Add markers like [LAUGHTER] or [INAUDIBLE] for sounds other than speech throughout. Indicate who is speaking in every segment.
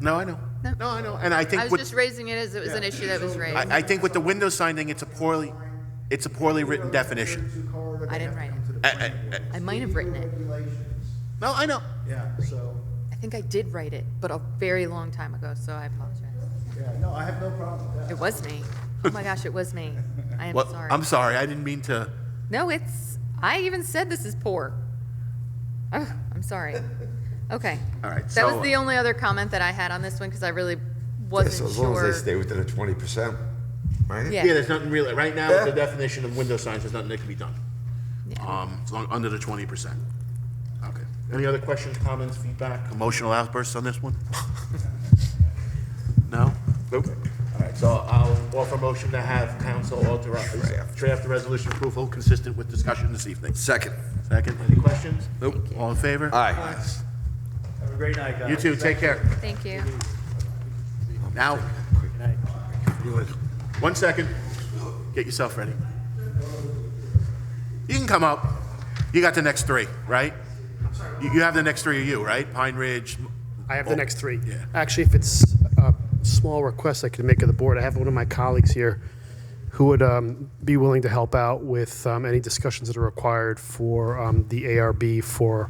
Speaker 1: No, I know.
Speaker 2: No.
Speaker 1: No, I know. And I
Speaker 2: I
Speaker 1: think
Speaker 2: was
Speaker 1: with,
Speaker 2: just raising it as it was an issue that was raised.
Speaker 1: I, I think with the window sign thing, it's a poorly, it's a poorly written definition. Uh,
Speaker 2: I didn't write it.
Speaker 1: I- I- I-
Speaker 2: I might have written it.
Speaker 3: Regulations,
Speaker 1: No, I know.
Speaker 3: yeah, so,
Speaker 2: I think I did write it, but a very long time ago, so I apologize.
Speaker 3: yeah, no, I have no problem with that.
Speaker 2: It was me. Oh my gosh, it was me. I am
Speaker 1: Well,
Speaker 2: sorry.
Speaker 1: I'm sorry, I didn't mean to.
Speaker 2: No, it's, I even said this is poor. Oh, I'm sorry. Okay.
Speaker 1: All right,
Speaker 2: That
Speaker 1: so-
Speaker 2: was the only other comment that I had on this one because I really
Speaker 4: Yeah, so
Speaker 2: wasn't
Speaker 4: as long as they
Speaker 2: sure.
Speaker 4: stay within the twenty percent, right?
Speaker 2: Yeah.
Speaker 1: Yeah, there's nothing really, right now, with the
Speaker 4: Yeah.
Speaker 1: definition of window signs, there's nothing that can be done.
Speaker 2: Yeah.
Speaker 1: Um, as long- under the twenty percent. Okay. Any other questions, comments, feedback, emotional outbursts on this [LAUGHS] one? No?
Speaker 4: Nope.
Speaker 1: Alright, so I'll offer a motion to have council authorize, draft the resolution approval consistent with discussion this evening.
Speaker 4: Second.
Speaker 1: Second, any questions?
Speaker 4: Nope.
Speaker 1: All in favor?
Speaker 4: Aye.
Speaker 3: Have a great night, guys.
Speaker 1: You too, take care.
Speaker 2: Thank you.
Speaker 1: Now, one second. Get yourself ready. You can come up. You got the next three, right? You you have the next three of you, right? Pine Ridge.
Speaker 5: I have
Speaker 1: Oh,
Speaker 5: the next three.
Speaker 1: yeah.
Speaker 5: Actually, if it's a small request I could make of the board, I have one of my colleagues here who would um, be willing to help out with um, any discussions that are required for um, the ARB for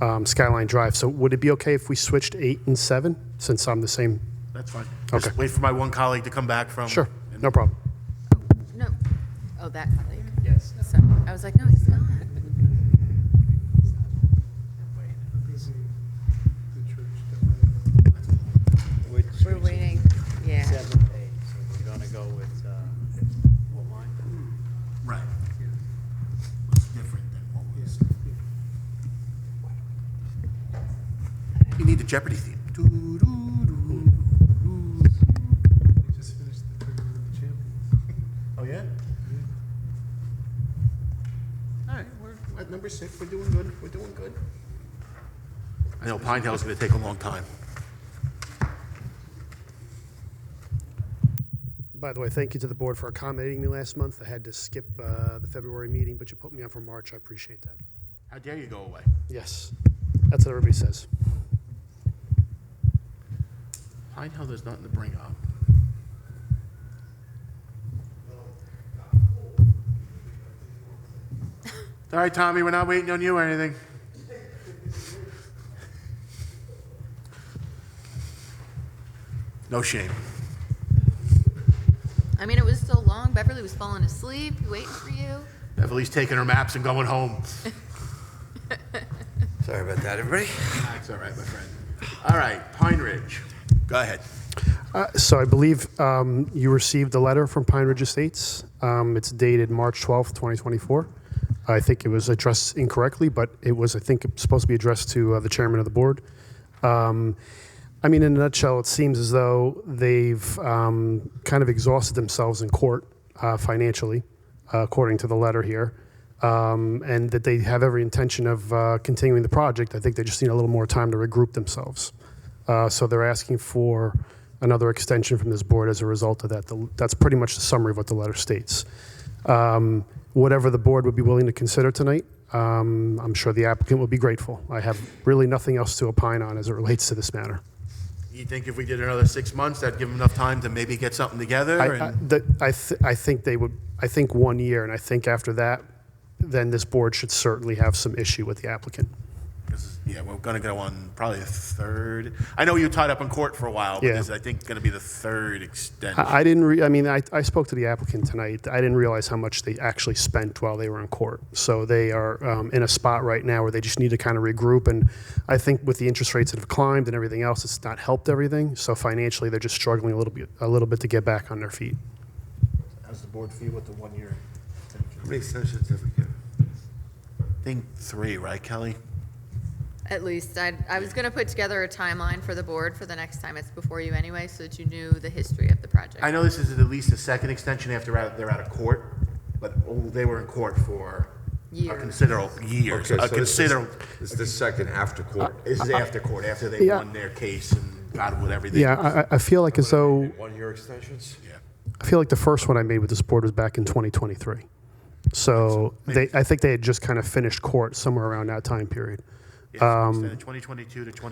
Speaker 5: um, Skyline Drive. So would it be okay if we switched eight and seven, since I'm the same?
Speaker 1: That's fine. Just
Speaker 5: Okay.
Speaker 1: wait for my one colleague to come back from.
Speaker 5: Sure, no problem.
Speaker 2: No, oh, that colleague. Yes. So I was like, no, he's not. We're waiting, yeah.
Speaker 6: Seven days, so we're gonna go with, uh, what line?
Speaker 1: Right. What's different than what was? You need the Jeopardy theme.
Speaker 7: They just finished the tournament of the champions.
Speaker 1: Oh, yeah? All right, we're at number six, we're doing good, we're doing good. I know Pine Hill's gonna take a long time.
Speaker 5: By the way, thank you to the board for accommodating me last month. I had to skip uh, the February meeting, but you put me on for March. I appreciate that.
Speaker 1: How dare you go away?
Speaker 5: Yes, that's what everybody says.
Speaker 1: Pine Hill, there's nothing to bring [LAUGHS] up. All right, Tommy, we're not waiting on you or anything. No shame.
Speaker 2: I mean, it was so long. Beverly was falling asleep, waiting for you.
Speaker 1: Beverly's taking her maps and going home.
Speaker 4: [LAUGHS] Sorry about that, everybody.
Speaker 1: That's all right, my friend. All right, Pine Ridge. Go ahead.
Speaker 5: Uh, So I believe um, you received a letter from Pine Ridge Estates. Um, It's dated March 12th, 2024. I think it was addressed incorrectly, but it was, I think, supposed to be addressed to uh, the chairman of the board. Um, I mean, in a nutshell, it seems as though they've um, kind of exhausted themselves in court uh, financially, uh, according to the letter here, um, and that they have every intention of uh, continuing the project. I think they just need a little more time to regroup themselves. Uh, So they're asking for another extension from this board as a result of that. The- That's pretty much the summary of what the letter states. Um, Whatever the board would be willing to consider tonight, um, I'm sure the applicant will be grateful. I have really nothing else to opine on as it relates to this matter.
Speaker 1: You think if we did another six months, that'd give them enough time to maybe get something together?
Speaker 5: I- I,
Speaker 1: and-
Speaker 5: that- I, th- I think they would, I think one year, and I think after that, then this board should certainly have some issue with the applicant.
Speaker 1: This is- Yeah, we're gonna go on probably a third. I know you were tied up in court for a while, but
Speaker 5: Yeah.
Speaker 1: this is, I think, gonna be the third extension.
Speaker 5: I, I didn't, re- I mean, I, I spoke to the applicant tonight. I didn't realize how much they actually spent while they were in court. So they are um, in a spot right now where they just need to kind of regroup. And I think with the interest rates that have climbed and everything else, it's not helped everything. So financially, they're just struggling a little bit, a little bit to get back on their feet.
Speaker 1: How's the board feel with the one-year
Speaker 4: How many extensions have we given?
Speaker 1: I think three, right, Kelly?
Speaker 2: At least I, I was gonna put together a timeline for the board for the next time it's before you anyway, so that you knew the history of the project.
Speaker 1: I know this is at least a second extension after out- they're out of court, but oh, they were in court for a
Speaker 2: Years.
Speaker 1: considerable, years,
Speaker 4: Okay,
Speaker 1: a
Speaker 4: so this is-
Speaker 1: considerable,
Speaker 4: This is the second after court.
Speaker 1: this is after court, after they
Speaker 5: Yeah.
Speaker 1: won their case and got with everything.
Speaker 5: Yeah, I, I- I feel like as though,
Speaker 4: One-year extensions?
Speaker 1: Yeah.
Speaker 5: I feel like the first one I made with this board was back in 2023. So they, I think they had just kind of finished court somewhere around that time period.
Speaker 1: Yeah, so instead of 2022 to 20.